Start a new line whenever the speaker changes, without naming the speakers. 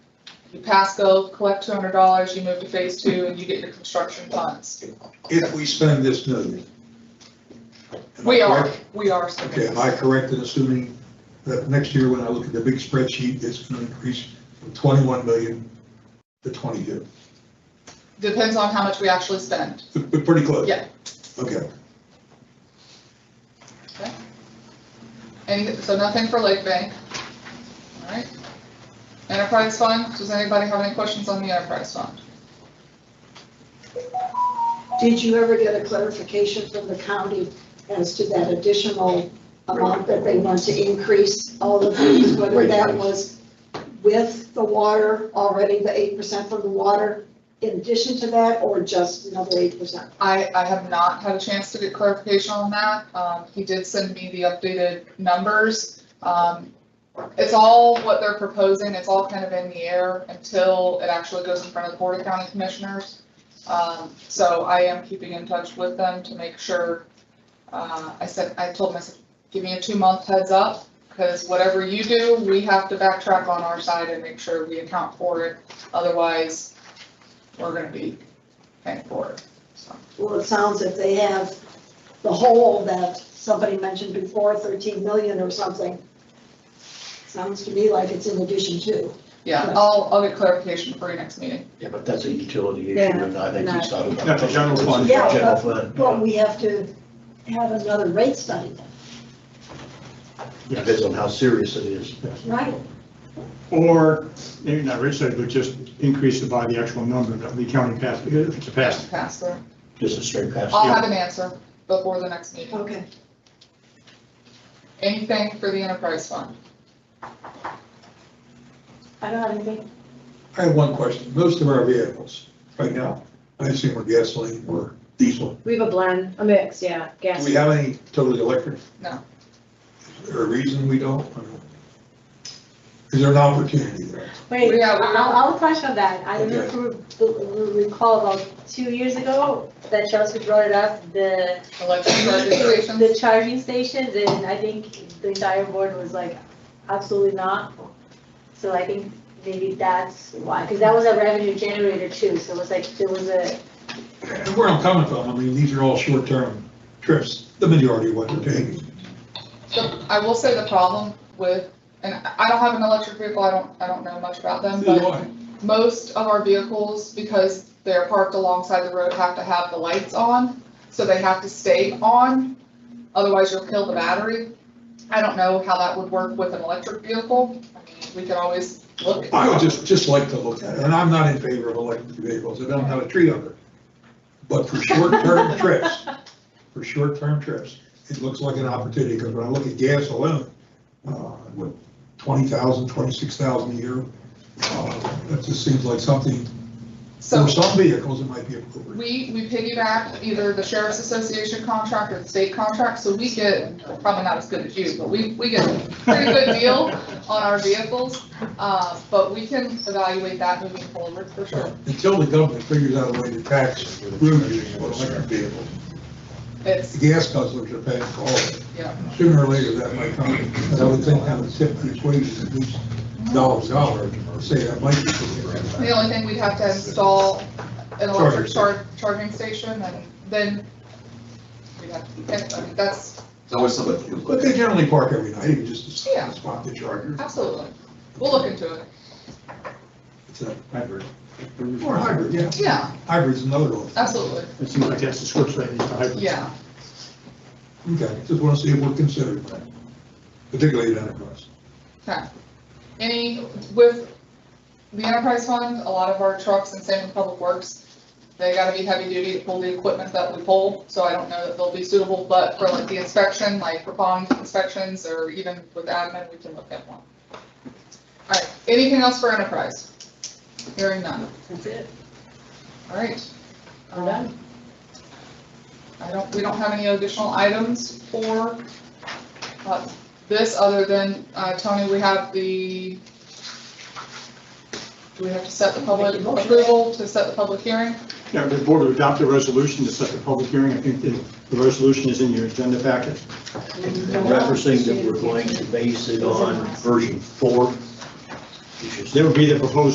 You pass go, collect two hundred dollars, you move to phase two, and you get your construction funds.
if we spend this million. Am I
We are,
correct?
we are. spending
Okay, am I correct in assuming that next year when I look at the big spreadsheet, it's going to increase from 21 million to 22?
Depends on how much we actually spend.
But but pretty close?
Yeah.
Okay,
Any, so nothing for Lake Bank. All right. Enterprise fund, does anybody have any questions on the enterprise fund?
Did you ever get a clarification from the county as to that additional amount that they want to increase all of these? Whether that was with the water, already the eight percent from the water, in addition to that, or just another eight percent?
I, I have not had a chance to get clarification on that. Um, he did send me the updated numbers. Um, it's all what they're proposing, it's all kind of in the air until it actually goes in front of the Board of County Commissioners. Um, so I am keeping in touch with them to make sure, uh, I said, I told myself, give me a two-month heads up, because whatever you do, we have to backtrack on our side and make sure we account for it, otherwise, we're gonna be paying for it, so.
Well, it sounds if they have the whole that somebody mentioned before, thirteen million or something. Sounds to me like it's in addition to.
Yeah, I'll, I'll get clarification for your next meeting.
Yeah, but that's a utility issue,
Yeah,
and I think
not-
it's not. about-
That's a general fund.
Yeah, but-
General fund.
Well, we have to have another rate study then,
Depends on how serious it is.
right?
Or, maybe not rate study, but just increase it by the actual number that the county passed, if it's a pass.
Pass through.
Just a straight pass.
I'll have an answer before the next meeting.
Okay.
Anything for the enterprise fund?
I don't have anything.
I have one question. Most of our vehicles right now, I assume are gasoline or diesel.
We have a blend, a mix, yeah,
Do
gas.
we have any totally electric?
No.
Is there a reason we don't? I mean, Is there an opportunity there?
We
Wait,
have-
I'll, I'll touch on that. I don't know if you recall about two years ago that Chelsea brought it up, the,
Electric registration?
the charging stations, and I think the entire board was like, absolutely not. So I think maybe that's why, because that was a revenue generator too, so it was like, there was a,
And where I'm coming from, I mean, these are all short-term trips, the majority of what they're taking.
So I will say the problem with, and I don't have an electric vehicle, I don't, I don't know much about them,
Neither do
but
I.
most of our vehicles, because they're parked alongside the road, have to have the lights on, so they have to stay on, otherwise you'll kill the battery. I don't know how that would work with an electric vehicle. I mean, We can always look
I would just, just like to look at it, and I'm not in favor of electric vehicles, I don't have a tree of it. But for short-term trips, for short-term trips, it looks like an opportunity, because when I look at gas alone, uh, what, 20,000, 26,000 a year, uh, that just seems like something,
So
for some vehicles, it might be appropriate.
we, we piggyback either the sheriff's association contract or the state contract, so we get, probably not as good as you, but we, we get a pretty good deal on our vehicles. Uh, but we can evaluate that moving forward for sure.
Until the government figures out a way to tax room use for electric vehicles, the
It's,
gas customers are paying for all of it.
Yeah.
Sooner or later, that might come, and I would think that would tip the equation at least dollars dollar, say that might be. something.
the only thing we'd have to install an electric char,
Charger.
charging station and then we'd have to, I mean, that's,
It's always something.
But they generally park every night, even just
Yeah.
to spot the charger.
absolutely. We'll look into it.
It's a-
Hybrid.
Or hybrid, yeah,
Yeah,
hybrid's another one.
absolutely.
It seems like that's the switch that needs to hybrid.
Yeah.
Okay, just want to see if we're considered, particularly at Enterprise.
Any, with the enterprise fund, a lot of our trucks and same with public works, they gotta be heavy duty to pull the equipment that we pull, so I don't know that they'll be suitable, but for like the inspection, like for bond inspections or even with admin, we can look at one. All right, anything else for enterprise? Hearing none,
That's it.
all right.
All done.
I don't, we don't have any additional items for uh, this, other than, uh, Tony, we have the, do we have to set the public
Make a motion.
approval to set the public hearing?
Yeah, the board would adopt a resolution to set the public hearing. I think the, the resolution is in your agenda packet.
Referencing that we're going to base it on version four, which is
That would be the proposed